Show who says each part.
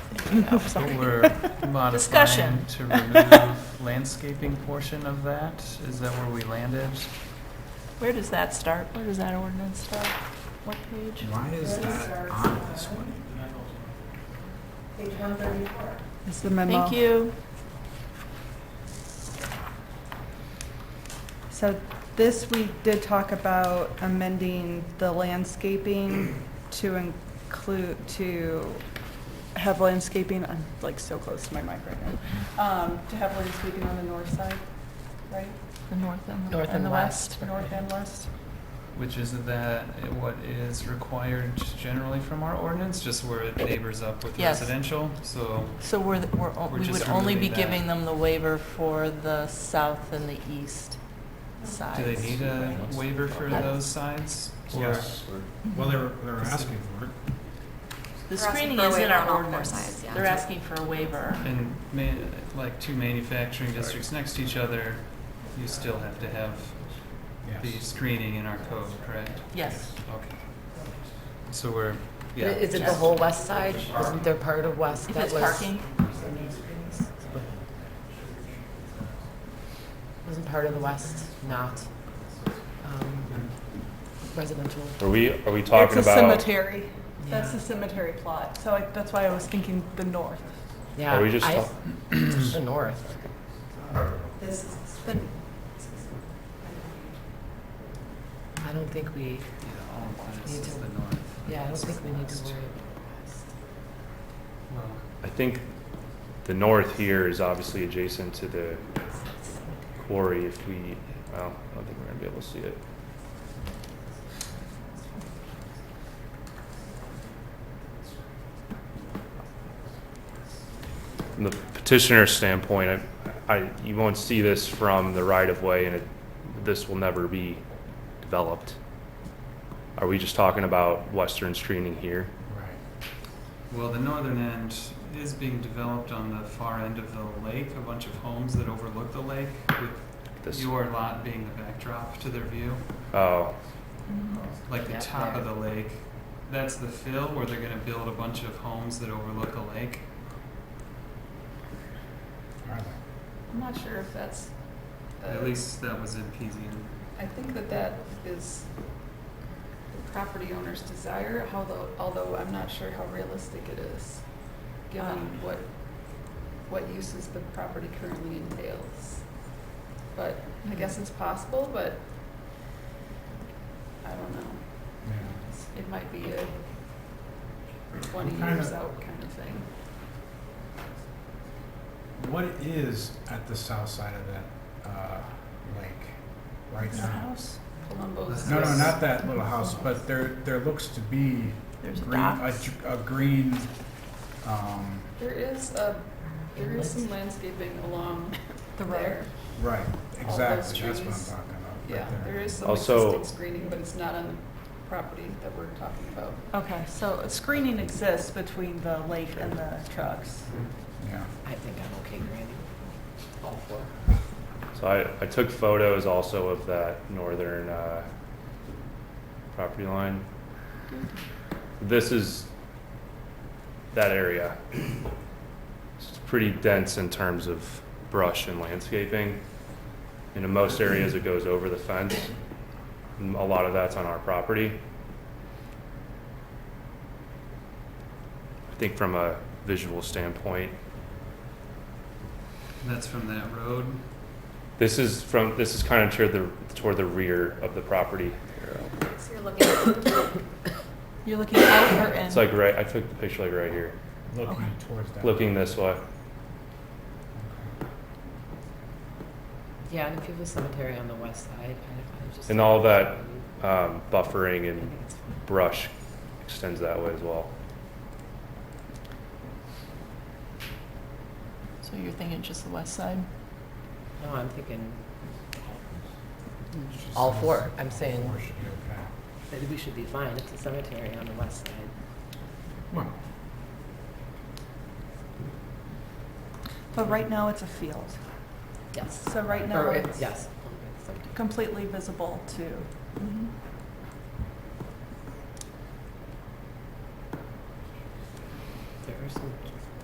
Speaker 1: No, sorry.
Speaker 2: We're modifying
Speaker 1: Discussion.
Speaker 2: to remove landscaping portion of that? Is that where we landed?
Speaker 1: Where does that start? Where does that ordinance start? What page?
Speaker 3: Why is that on this one?
Speaker 4: It's the memo.
Speaker 1: Thank you.
Speaker 4: So this, we did talk about amending the landscaping to include, to have landscaping, I'm like so close to my mic right now, um, to have landscaping on the north side, right?
Speaker 1: The north and the.
Speaker 5: North and west.
Speaker 4: North and west?
Speaker 2: Which is that what is required generally from our ordinance, just where it neighbors up with
Speaker 5: Yes.
Speaker 2: residential? So
Speaker 5: So we're, the- we're, o- we
Speaker 2: We're
Speaker 5: would
Speaker 2: just
Speaker 5: only be
Speaker 2: removing that.
Speaker 5: giving them the waiver for the south and the east sides.
Speaker 2: do they need a waiver for
Speaker 5: Yes.
Speaker 2: those sides? Or-
Speaker 3: Yes. Well, they're, they're asking for it.
Speaker 5: The
Speaker 6: They're asking
Speaker 5: screening
Speaker 6: for a
Speaker 5: is in
Speaker 6: waiver on
Speaker 5: our
Speaker 6: all four
Speaker 5: ordinance.
Speaker 6: sides, yeah.
Speaker 5: They're asking for a waiver.
Speaker 2: And ma- like two manufacturing districts next to each other, you still have to have the
Speaker 3: Yes.
Speaker 2: screening in our code, correct?
Speaker 5: Yes.
Speaker 2: Okay. So we're, yeah.
Speaker 7: Is it the
Speaker 5: Yes.
Speaker 7: whole west side? Wasn't there part of west
Speaker 5: If
Speaker 7: that
Speaker 5: it's
Speaker 7: was?
Speaker 5: parking,
Speaker 7: Wasn't part of the west not um, residential?
Speaker 8: Are we, are we talking
Speaker 4: It's a
Speaker 8: about,
Speaker 4: cemetery. That's
Speaker 7: Yeah.
Speaker 4: a cemetery plot, so I, that's why I was thinking the north.
Speaker 7: Yeah.
Speaker 8: are we just,
Speaker 7: I-
Speaker 8: talk-
Speaker 7: The north. I don't think we,
Speaker 2: Yeah, all included
Speaker 7: You
Speaker 2: is
Speaker 7: do.
Speaker 2: the north.
Speaker 7: yeah, I don't think we need to worry.
Speaker 2: Well,
Speaker 8: I think the north here is obviously adjacent to the quarry if we, well, I don't think we're gonna be able to see it. From the petitioner's standpoint, I, I, you won't see this from the right of way and it, this will never be developed. Are we just talking about western screening here?
Speaker 2: Well, the northern end is being developed on the far end of the lake, a bunch of homes that overlook the lake, with
Speaker 8: This,
Speaker 2: your lot being the backdrop to their view.
Speaker 8: oh,
Speaker 2: Like the
Speaker 7: Yeah,
Speaker 2: top of
Speaker 7: there.
Speaker 2: the lake, that's the fill where they're gonna build a bunch of homes that overlook a lake.
Speaker 3: Are they?
Speaker 1: I'm not sure if that's,
Speaker 2: At least that was in PZM.
Speaker 6: I think that that is the property owner's desire, although, although I'm not sure how realistic it is, given what, what uses the property currently entails. But I guess it's possible, but I don't know.
Speaker 3: Yeah.
Speaker 6: It might be a twenty
Speaker 3: Kind
Speaker 6: years
Speaker 3: of-
Speaker 6: out kind of thing.
Speaker 3: What is at the south side of that uh, lake right now?
Speaker 6: Columbo's.
Speaker 3: No, no, not that little house, but there, there looks to be
Speaker 1: there's a
Speaker 3: green, a,
Speaker 1: dock.
Speaker 3: dr- a green, um,
Speaker 6: There is a, there is some landscaping along
Speaker 4: The road.
Speaker 6: there.
Speaker 3: right,
Speaker 6: All
Speaker 3: exactly, that's what
Speaker 6: those
Speaker 3: I'm
Speaker 6: trees.
Speaker 3: talking about. right
Speaker 6: Yeah, there is some
Speaker 8: Also-
Speaker 6: existing screening, but it's not on the property that we're talking about.
Speaker 4: Okay, so screening exists between the lake and the trucks.
Speaker 3: Yeah.
Speaker 7: I think I'm okay, Granny. All four.
Speaker 8: So I, I took photos also of that northern uh, property line. This is that area. It's pretty dense in terms of brush and landscaping. And in most areas, it goes over the fence. And A lot of that's on our property. I think from a visual standpoint,
Speaker 2: That's from that road.
Speaker 8: this is from, this is kind of toward the, toward the rear of the property.
Speaker 6: So you're looking at
Speaker 4: You're looking out or in?
Speaker 8: It's like right, I took the picture like right here,
Speaker 3: Looking towards that.
Speaker 8: looking this way.
Speaker 7: Yeah, and if you have a cemetery on the west side, I I just.
Speaker 8: And all that um, buffering
Speaker 7: I
Speaker 8: and
Speaker 7: think it's fine.
Speaker 8: brush extends that way as well.
Speaker 1: So you're thinking just the west side?
Speaker 7: No, I'm thinking
Speaker 3: It just
Speaker 7: all
Speaker 3: says
Speaker 7: four. I'm saying
Speaker 3: Four should be okay.
Speaker 7: that we should be fine. It's a cemetery on the west side.
Speaker 3: Well,
Speaker 4: But right now, it's a field.
Speaker 7: Yes.
Speaker 4: So right now,
Speaker 7: Or,
Speaker 4: it's
Speaker 7: yes.
Speaker 4: completely visible to